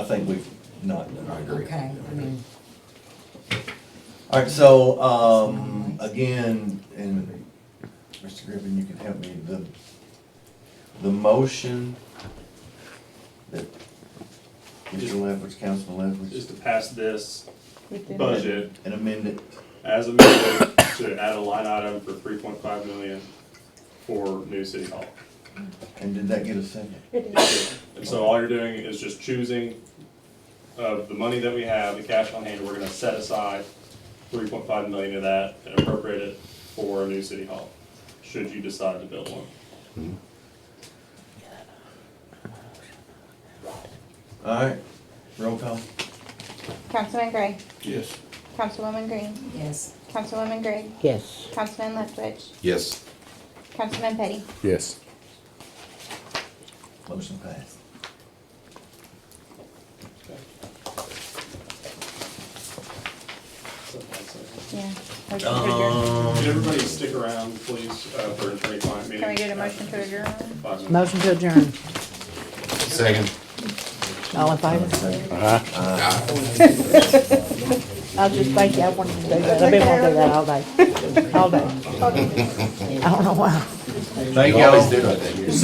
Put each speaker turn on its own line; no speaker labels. think we've not done.
I agree.
Okay, I mean,
All right, so, um, again, and Mr. Griffin, you can help me, the, the motion that Mr. Leverage, Councilman
Just
Leverage,
to pass this
Within the-
budget
and amend it,
as amended to add a line item for three point five million for new city hall.
and did that get a second?
It is.
And so all you're doing is just choosing of the money that we have, the cash on hand, we're gonna set aside three point five million of that and appropriate it for a new city hall, should you decide to build one.
All right, roll call.
Councilman Gray,
Yes.
Councilwoman Green,
yes,
Councilwoman Gregg,
yes,
Councilman Leftwich,
Yes.
Councilman Petty.
yes,
Motion passed.
Yeah. Motion to adjourn.
Can
Um,
everybody stick around, please, uh, for a three-client meeting?
Can we get a motion to adjourn?
Five minutes.
motion to adjourn,
Second.
all in favor?
uh-huh.
I was just thinking, I wanted to do that, I've been wanting to do that all day, all day. I don't know why.
Thank
You always
y'all.
do it, I think.